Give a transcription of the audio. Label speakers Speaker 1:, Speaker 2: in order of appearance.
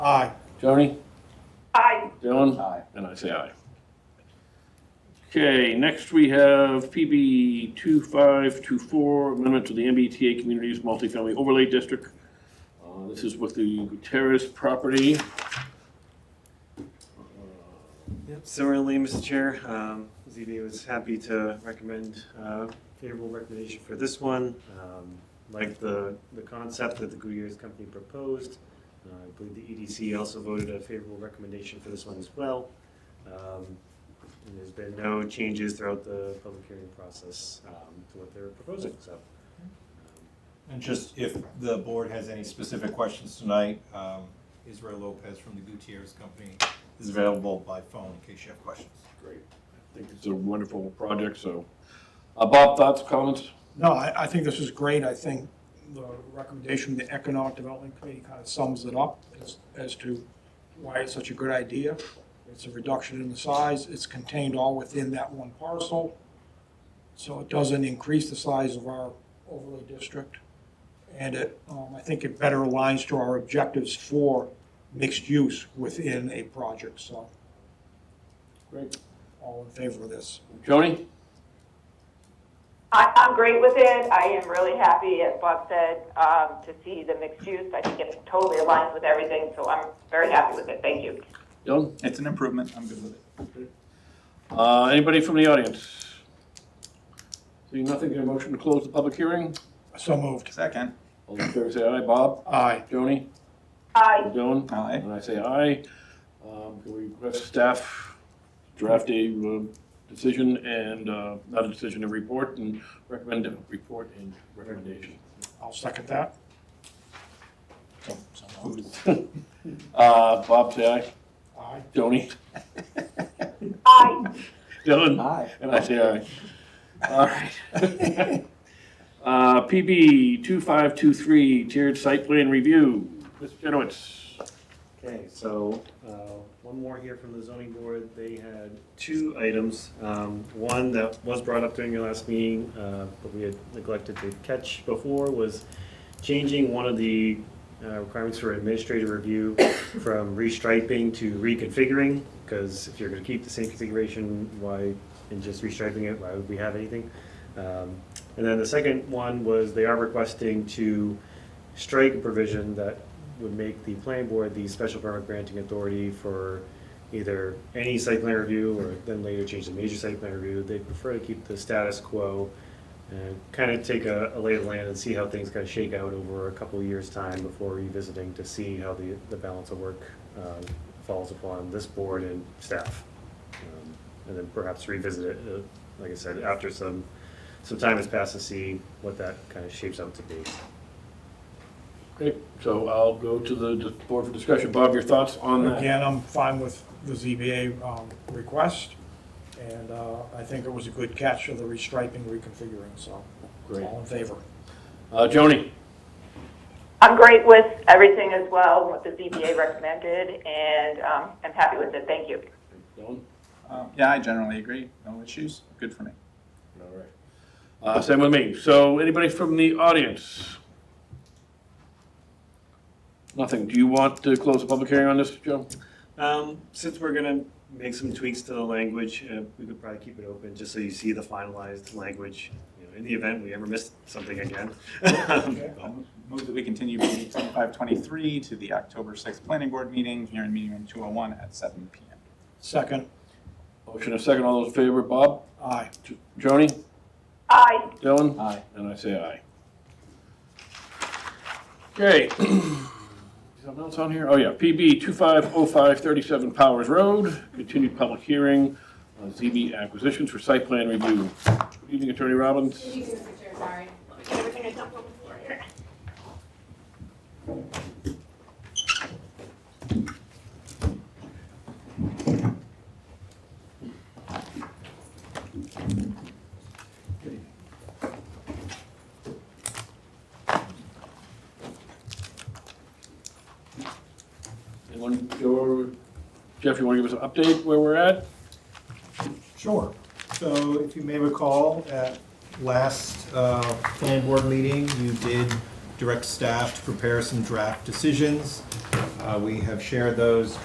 Speaker 1: Aye.
Speaker 2: Joni,
Speaker 3: Aye.
Speaker 2: Dylan?
Speaker 4: Aye.
Speaker 2: And I say aye. Okay, next we have PB 2524, amendment to the MBTA Communities Multifamily Overlay District. Uh, This is with the Gutierrez property. Uh,
Speaker 5: Yep, similarly, Mr. Chair, um, ZBA was happy to recommend uh, favorable recommendation for this one. Um, Like the, the concept that the Gutierrez company proposed, uh, I believe the EDC also voted a favorable recommendation for this one as well. Um, and There's been no changes throughout the public hearing process um, to what they're proposing, so. um,
Speaker 4: And just if the board has any specific questions tonight, um, Israel Lopez from the Gutierrez Company is available by phone in case you have questions.
Speaker 2: Great. I think it's a wonderful project, so. Uh, Bob, thoughts, comments?
Speaker 1: No, I, I think this is great. I think the recommendation of the Economic Development Committee kind of sums it up as, as to why it's such a good idea. It's a reduction in the size. It's contained all within that one parcel. So it doesn't increase the size of our overlay district. And it, um, I think it better aligns to our objectives for mixed use within a project, so.
Speaker 2: Great.
Speaker 1: All in favor of this.
Speaker 2: Joni?
Speaker 3: I, I'm great with it. I am really happy, as Bob said, um, to see the mixed use. I think it totally aligns with everything, so I'm very happy with it. Thank you.
Speaker 2: Dylan?
Speaker 4: It's an improvement, I'm good with it.
Speaker 2: Uh, Anybody from the audience? Seeing nothing, get a motion to close the public hearing?
Speaker 1: So moved.
Speaker 4: Second.
Speaker 2: All in favor, say aye. Bob?
Speaker 1: Aye.
Speaker 2: Joni?
Speaker 3: Aye.
Speaker 2: Dylan?
Speaker 4: Aye.
Speaker 2: And I say aye. Um, Can we request staff draft a uh, decision and, uh, not a decision, a report and recommend a report and recommendation?
Speaker 1: I'll second that.
Speaker 2: Uh, Bob, say aye.
Speaker 1: Aye.
Speaker 2: Joni?
Speaker 3: Aye.
Speaker 2: Dylan?
Speaker 4: Aye.
Speaker 2: And I say aye. All right. Uh, PB 2523, tiered site plan review. Mr. Jenowitz.
Speaker 5: Okay, so, uh, one more here from the zoning board. They had two items. Um, One that was brought up during your last meeting, uh, but we had neglected to catch before, was changing one of the uh, requirements for administrative review from restriping to reconfiguring, because if you're going to keep the same configuration, why, and just restriping it, why would we have anything? Um, And then the second one was they are requesting to strike a provision that would make the planning board the special permit granting authority for either any site plan review or then later change the major site plan review. They prefer to keep the status quo and kind of take a, a lay of the land and see how things kind of shake out over a couple of years' time before revisiting to see how the, the balance of work uh, falls upon this board and staff. Um, And then perhaps revisit it, uh, like I said, after some, some time has passed to see what that kind of shapes up to be.
Speaker 2: Great. So I'll go to the board for discussion. Bob, your thoughts on that?
Speaker 1: Again, I'm fine with the ZBA um, request, and uh, I think it was a good catch of the restriping, reconfiguring, so
Speaker 2: Great.
Speaker 1: all in favor.
Speaker 2: Uh, Joni?
Speaker 3: I'm great with everything as well, what the ZBA recommended, and, um, I'm happy with it. Thank you.
Speaker 2: Dylan?
Speaker 4: Um, Yeah, I generally agree, no issues, good for me.
Speaker 2: All right. Uh, same with me. So anybody from the audience? Nothing. Do you want to close the public hearing on this, Joe?
Speaker 5: Um, since we're gonna make some tweaks to the language, uh, we could probably keep it open, just so you see the finalized language, you know, in the event we ever missed something again. Um,
Speaker 4: Um,
Speaker 6: I'll Move that we continue meeting 2523 to the October 6th Planning Board meeting, here in meeting room 201 at 7 PM.
Speaker 1: Second,
Speaker 2: Motion a second. All those in favor, Bob?
Speaker 1: aye.
Speaker 2: J- Joni?
Speaker 3: Aye.
Speaker 2: Dylan?
Speaker 6: Aye.
Speaker 2: And I say aye. Okay. Something else on here? Oh, yeah. PB 250537 Powers Road, continued public hearing on ZB acquisitions for site plan review. Good evening, Attorney Robbins.
Speaker 7: Good evening, Mr. Chair, sorry. Let me get everything I dumped on the floor here.
Speaker 2: Anyone, your, Jeff, you want to give us an update where we're at?
Speaker 4: Sure. So if you may recall, at last uh, Plan Board meeting, you did direct staff to prepare some draft decisions. Uh, We have shared those